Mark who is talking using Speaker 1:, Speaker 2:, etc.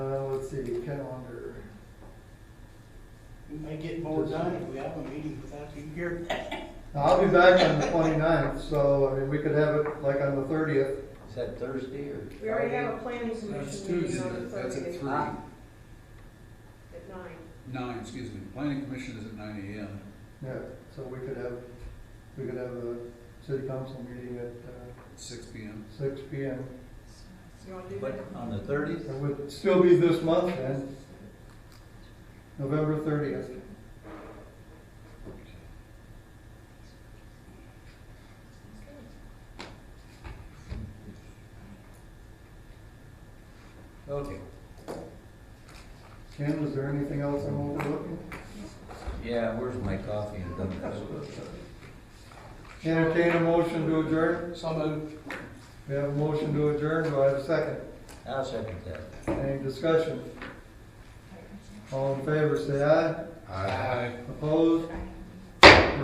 Speaker 1: Uh, calendar.
Speaker 2: We may get more done if we have a meeting without you here.
Speaker 1: Now, I'll be back on the 29th, so, I mean, we could have it like on the thirtieth.
Speaker 3: Is that Thursday or?
Speaker 4: We already have a
Speaker 3: Friday?
Speaker 4: planning
Speaker 5: That's
Speaker 4: commission
Speaker 5: Tuesday,
Speaker 4: meeting on the
Speaker 5: that's at
Speaker 4: thirtieth
Speaker 5: three,
Speaker 4: at nine.
Speaker 5: nine, excuse me, planning commission is at nine AM.
Speaker 1: Yeah, so we could have, we could have a city council meeting at
Speaker 5: Six P M.
Speaker 1: uh, six P M.
Speaker 4: You wanna do
Speaker 3: What,
Speaker 4: that?
Speaker 3: on the thirtieth?
Speaker 1: It would still be this month then, November thirtieth.
Speaker 3: Okay.
Speaker 1: Ken, was there anything else I'm overlooking?
Speaker 3: Yeah, where's my coffee and donuts?
Speaker 1: Entertain a motion to adjourn?
Speaker 2: So moved.
Speaker 1: We have a motion to adjourn, do I have a second?
Speaker 3: I'll second that.
Speaker 1: Any discussion? All in favor, say aye. Opposed?